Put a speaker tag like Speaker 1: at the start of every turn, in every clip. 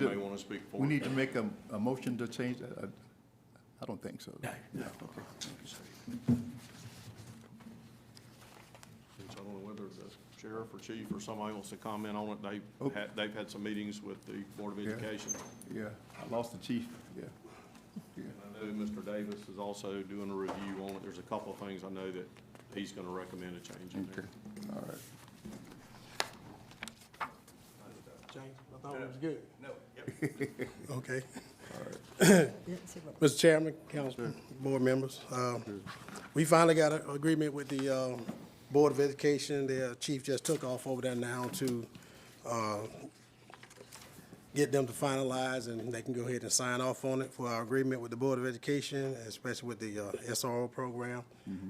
Speaker 1: You may want to speak for it.
Speaker 2: We need to make a, a motion to change that? I- I don't think so.
Speaker 1: Since I don't know whether the sheriff or chief or somebody wants to comment on it.
Speaker 2: Oh.
Speaker 1: They've had, they've had some meetings with the Board of
Speaker 2: Yeah.
Speaker 1: Education.
Speaker 2: Yeah, I lost the chief, yeah. Yeah,
Speaker 1: I know Mr. Davis is also doing a review on it. There's a couple of things I know that he's going to recommend a change in there.
Speaker 2: okay, all right.
Speaker 3: James, I thought it was good. No. Okay. Mr. Chairman, council, board members, um, we finally got an agreement with the um, Board of Education. Their chief just took off over there now to uh, get them to finalize, and they can go ahead and sign off on it for our agreement with the Board of Education, especially with the uh, SRO program.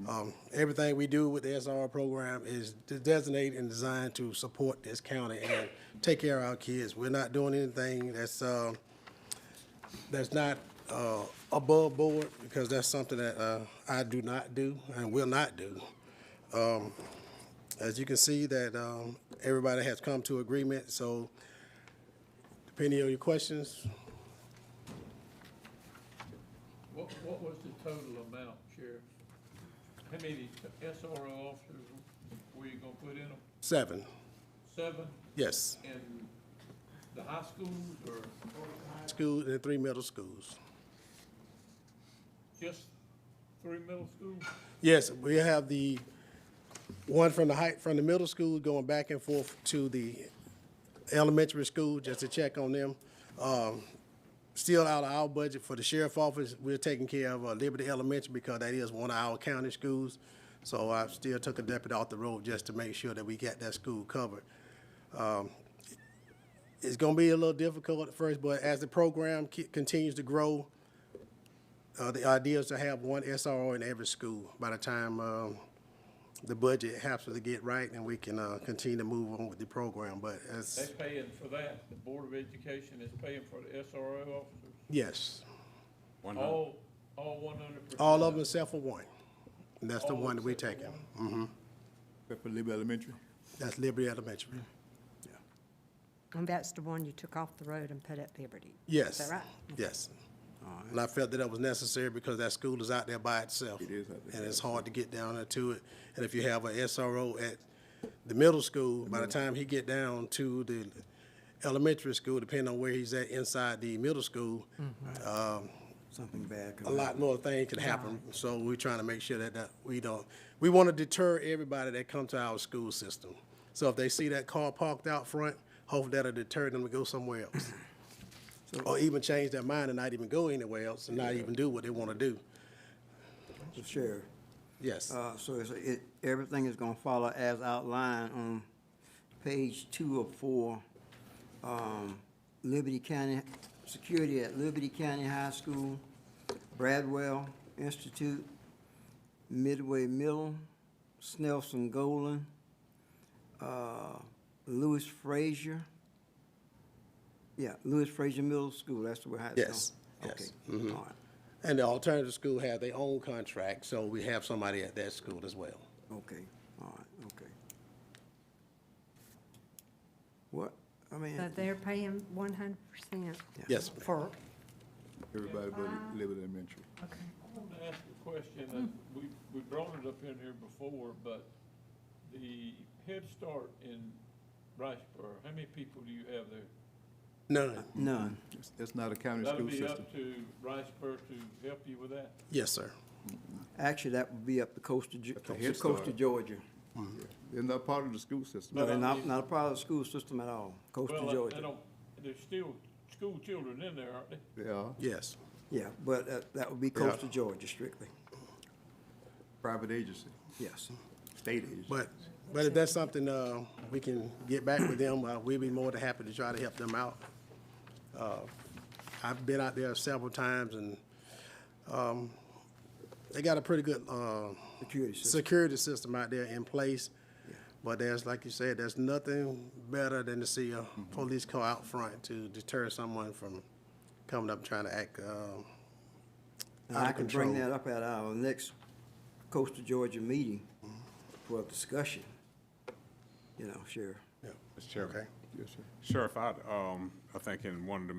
Speaker 3: Um, Everything we do with the SRO program is designated and designed to support this county and take care of our kids. We're not doing anything that's, uh, that's not uh, above board, because that's something that uh, I do not do and will not do. Um, As you can see, that um, everybody has come to agreement, so depending on your questions,
Speaker 4: What, what was the total amount, Sheriff? How many SRO officers were you gonna put in them?
Speaker 3: seven,
Speaker 4: Seven
Speaker 3: yes.
Speaker 4: in the high schools or
Speaker 3: School and three middle schools.
Speaker 4: just three middle schools?
Speaker 3: Yes, we have the one from the height, from the middle school going back and forth to the elementary school, just to check on them. Um, Still out of our budget for the sheriff office, we're taking care of uh, Liberty Elementary because that is one of our county schools. So I still took a deputy off the road just to make sure that we got that school covered. Um, It's gonna be a little difficult at first, but as the program ki- continues to grow, uh, the idea is to have one SRO in every school by the time, um, the budget happens to get right and we can, uh, continue to move on with the program, but
Speaker 4: They
Speaker 3: as,
Speaker 4: paying for that, the Board of Education is paying for the SRO officers?
Speaker 3: yes,
Speaker 4: All, all one hundred percent?
Speaker 3: all of them except for one. And that's the
Speaker 4: All
Speaker 3: one that we
Speaker 4: except for
Speaker 3: taking.
Speaker 2: Except for Liberty Elementary?
Speaker 3: That's Liberty Elementary.
Speaker 5: And that's the one you took off the road and put at Liberty?
Speaker 3: Yes.
Speaker 5: Is that right?
Speaker 3: Yes. And I felt that that was necessary because that school is out there by itself.
Speaker 2: It is out there.
Speaker 3: And it's hard to get down there to it. And if you have a SRO at the middle school, by the time he get down to the elementary school, depending on where he's at inside the middle school,
Speaker 6: Something bad could
Speaker 3: a
Speaker 6: happen.
Speaker 3: lot more things can happen. So we're trying to make sure that, that we don't, we want to deter everybody that come to our school system. So if they see that car parked out front, hopefully that'll deter them to go somewhere else. Or even change their mind and not even go anywhere else and not even do what they want to do.
Speaker 6: Mr. Sheriff,
Speaker 3: Yes,
Speaker 6: uh, so it's, it, everything is gonna follow as outlined on page two of four. Um, Liberty County, security at Liberty County High School, Bradwell Institute, Midway Middle, Snelson Golden, uh, Lewis Frazier. Yeah, Lewis Frazier Middle School, that's the way it's going.
Speaker 3: Yes, Mm-hmm. yes,
Speaker 6: Okay, all right,
Speaker 3: and the alternative school have their own contract, so we have somebody at that school as well.
Speaker 6: Okay, all right, okay. What, I mean,
Speaker 5: So they're paying one hundred percent
Speaker 3: Yes, ma'am.
Speaker 5: for,
Speaker 2: Everybody but Liberty Elementary.
Speaker 5: okay.
Speaker 4: I want to ask a question, and we, we brought it up in here before, but the Head Start in Riceboro, how many people do you have there?
Speaker 3: none,
Speaker 6: none,
Speaker 2: It's- It's not a county
Speaker 4: That'll
Speaker 2: school
Speaker 6: uh,
Speaker 4: be
Speaker 2: system.
Speaker 4: up to Riceboro to help you with that?
Speaker 3: yes, sir.
Speaker 6: actually, that would be up the coast of, Ge-
Speaker 2: the Head
Speaker 6: to coast
Speaker 2: Start.
Speaker 6: of Georgia.
Speaker 2: They're not part of the school system.
Speaker 6: No, they're
Speaker 4: I
Speaker 6: not,
Speaker 4: mean-
Speaker 6: not a part of the school system at all, coast of
Speaker 4: uh, Well, uh, I- I
Speaker 6: Georgia.
Speaker 4: don't, there's dus still school children in there, aren't they?
Speaker 2: They are
Speaker 3: Yes,
Speaker 6: Yeah, but that, that would be coast of Georgia strictly,
Speaker 2: private agency,
Speaker 6: yes.
Speaker 2: state agency.
Speaker 3: but, but if that's something, uh, we can get back with them, uh, we'd be more than happy to try to help them out. Uh, I've been out there several times and, um, they got a pretty good, uh,
Speaker 6: Security system,
Speaker 3: security system out there in place. But there's, like you said, there's nothing better than to see a police car out front to deter someone from coming up trying to act, um,
Speaker 6: and
Speaker 3: out of
Speaker 6: I can bring
Speaker 3: control.
Speaker 6: that up at our next coast of Georgia meeting for discussion, you know, Sheriff.
Speaker 3: Yeah. Okay.
Speaker 2: Yes, sir.
Speaker 7: Sheriff, I, um, I think in one of the